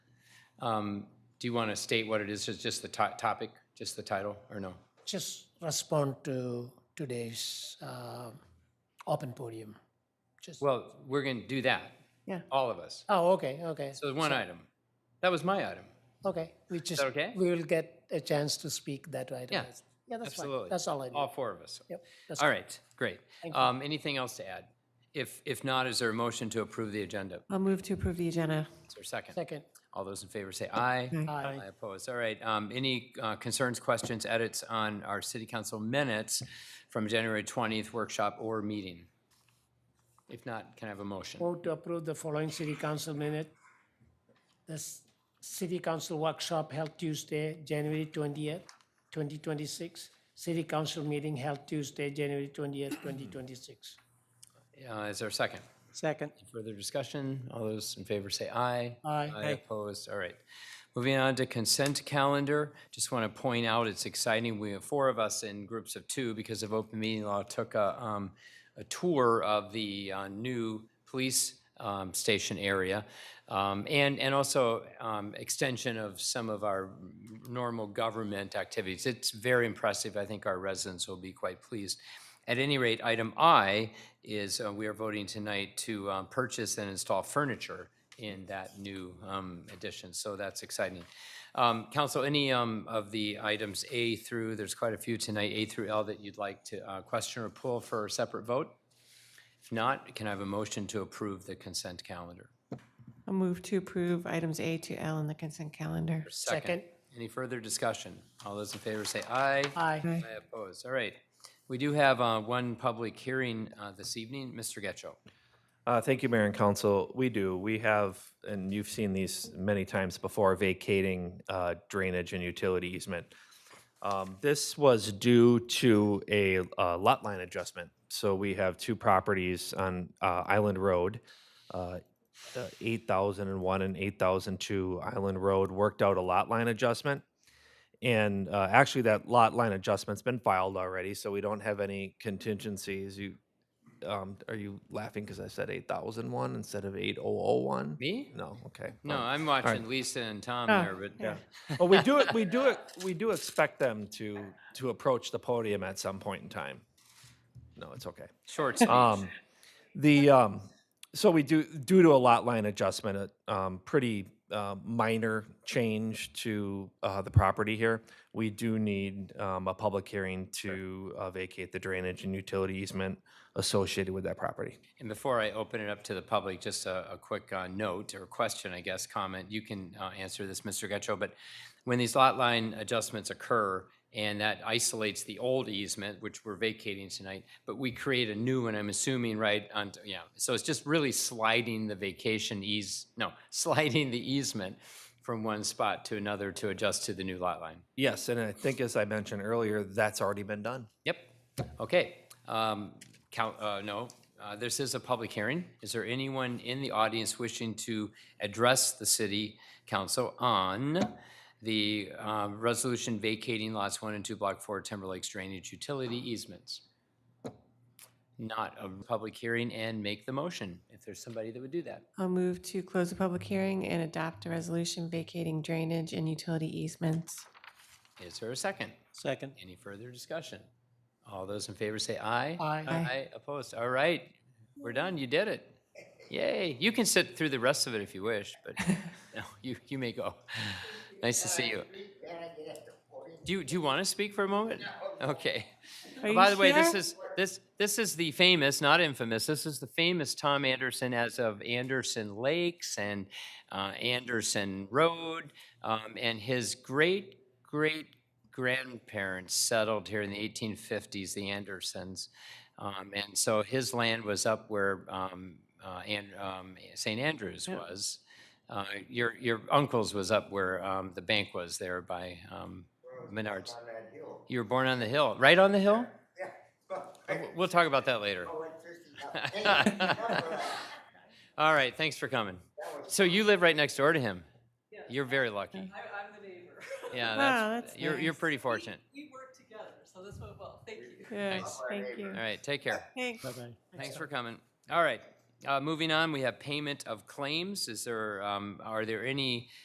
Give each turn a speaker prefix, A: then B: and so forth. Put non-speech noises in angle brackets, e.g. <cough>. A: Um, Do you want to state what it is, just just the to- topic, just the title, or no?
B: just respond to today's um, open podium. Just,
A: Well, we're going to do that,
B: yeah.
A: all of us.
B: Oh, okay, okay,
A: So one item. That was my item.
B: okay. We just,
A: okay?
B: we will get a chance to speak that right
A: Yeah,
B: away. Yeah, that's fine.
A: absolutely.
B: That's all I need.
A: All four of us.
B: Yep, that's
A: All right, great.
B: Thank you.
A: Um, Anything else to add? If, if not, is there a motion to approve the agenda?
C: I'll move to approve the agenda.
A: Is there a second?
B: Second,
A: All those in favor say aye.
B: Aye.
A: I oppose. All right. um, Any uh, concerns, questions, edits on our city council minutes from January 20th workshop or meeting? If not, can I have a motion?
B: vote to approve the following city council minute. This city council workshop held Tuesday, January 20th, 2026. City council meeting held Tuesday, January 20th, 2026.
A: Uh, Is there a second?
D: Second.
A: Further discussion? All those in favor say aye.
B: Aye.
A: Aye opposed. All right. Moving on to consent calendar. Just want to point out, it's exciting. We have four of us in groups of two because of open meeting law took a, um, a tour of the uh, new police um, station area. Um, and, and also um, extension of some of our normal government activities. It's very impressive. I think our residents will be quite pleased. At any rate, item I is uh, we are voting tonight to um, purchase and install furniture in that new um, addition, so that's exciting. Um, Council, any um, of the items A through, there's quite a few tonight, A through L, that you'd like to uh, question or pull for a separate vote? If not, can I have a motion to approve the consent calendar?
C: I'll move to approve items A to L on the consent calendar.
B: Second.
A: Any further discussion? All those in favor say aye.
B: Aye.
A: I oppose. All right. We do have uh, one public hearing uh, this evening. Mr. Getchell.
E: Uh, thank you, Mayor and Council. We do. We have, and you've seen these many times before, vacating uh, drainage and utility easement. Um, This was due to a uh, lot line adjustment. So we have two properties on uh, Island Road, uh, uh, 8001 and 8002 Island Road, worked out a lot line adjustment. And uh, actually, that lot line adjustment's been filed already, so we don't have any contingencies. You um, are you laughing because I said 8001 instead of 8001?
A: Me?
E: No, okay.
A: No,
E: fine.
A: I'm watching Lisa and Tom there, but
E: Yeah. Well, we do it, we do it, we do expect them to, to approach the podium at some point in time. No, it's okay.
A: short speech.
E: Um, the, um, so we do, due to a lot line adjustment, a, um, pretty, uh, minor change to, uh, the property here. We do need, um, a public hearing to uh, vacate the drainage and utility easement associated with that property.
A: And before I open it up to the public, just a, a quick uh, note or question, I guess, comment. You can uh, answer this, Mr. Getchell, but when these lot line adjustments occur and that isolates the old easement, which we're vacating tonight, but we create a new one, I'm assuming, right? On, yeah. So it's just really sliding the vacation ease, no, <laughs> sliding the easement from one spot to another to adjust to the new lot line.
E: Yes, and I think as I mentioned earlier, that's already been done.
A: Yep. Okay. Um, Count, uh, no, uh, this is a public hearing. Is there anyone in the audience wishing to address the city council on the um, resolution vacating lots one and two, block four, Timberlake's drainage utility easements? Not a public hearing and make the motion if there's somebody that would do that.
C: I'll move to close the public hearing and adopt a resolution vacating drainage and utility easements.
A: Is there a second?
D: Second.
A: Any further discussion? All those in favor say aye.
B: Aye.
C: Aye.
A: Aye, opposed. All right, we're done. You did it. Yay. You can sit through the rest of it if you wish, but no, you, you may go. Nice to see you. Do you, do you want to speak for a moment? Okay.
C: Are you
A: Oh, By the way, this
C: sure?
A: is, this, this is the famous, not infamous, this is the famous Tom Anderson as of Anderson Lakes and uh, Anderson Road. um, And his great, great grandparents settled here in the 1850s, the Andersons. Um, And so his land was up where um, uh, An- um, St. Andrews was. Uh, Your, your uncle's was up where um, the bank was there by um, Menards. You were born on the hill, right on the hill? Uh, w- We'll talk about that later. All right, thanks for coming. So you live right next door to him? You're very lucky. I'm the neighbor.
F: <laughs>
A: Yeah,
C: Wow,
A: that's,
C: that's
A: you're, you're
C: nice.
A: pretty fortunate.
F: we work together, so this went well. Thank you.
C: Yes, thank you.
A: All right, take care.
C: Thanks.
B: bye-bye.
A: Thanks for coming. All right, uh, moving on, we have payment of claims. Is there, um, are there any